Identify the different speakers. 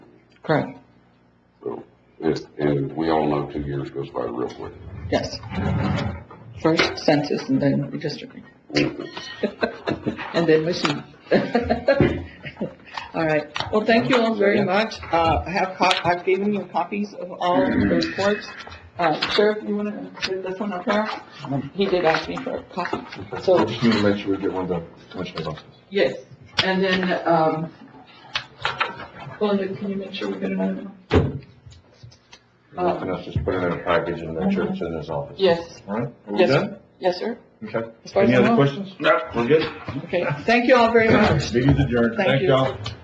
Speaker 1: Correct,
Speaker 2: So, it, and we all know two years goes by real quick.
Speaker 1: yes. First census and then redistricting, and then machine. All right, well, thank you all very much. Uh, I have cop, I've given you copies of all of the reports. Uh, Sheriff, you wanna give this one up there? He did ask me for a copy, so.
Speaker 3: Just need to make sure we get one to Commissioner's office.
Speaker 1: Yes, and then, um, Belinda, can you make sure we get another one? Uh,
Speaker 3: Nothing else, just put it in a package and make sure it's in his office.
Speaker 1: Yes,
Speaker 3: All right, are we
Speaker 1: Yes.
Speaker 3: done?
Speaker 1: yes, sir.
Speaker 3: Okay.
Speaker 1: As far as
Speaker 3: Any
Speaker 1: I
Speaker 3: other
Speaker 1: know.
Speaker 3: questions? No. We're good?
Speaker 1: Okay, thank you all very much.
Speaker 3: Meeting's adjourned.
Speaker 1: Thank
Speaker 3: Thank
Speaker 1: you.
Speaker 3: y'all.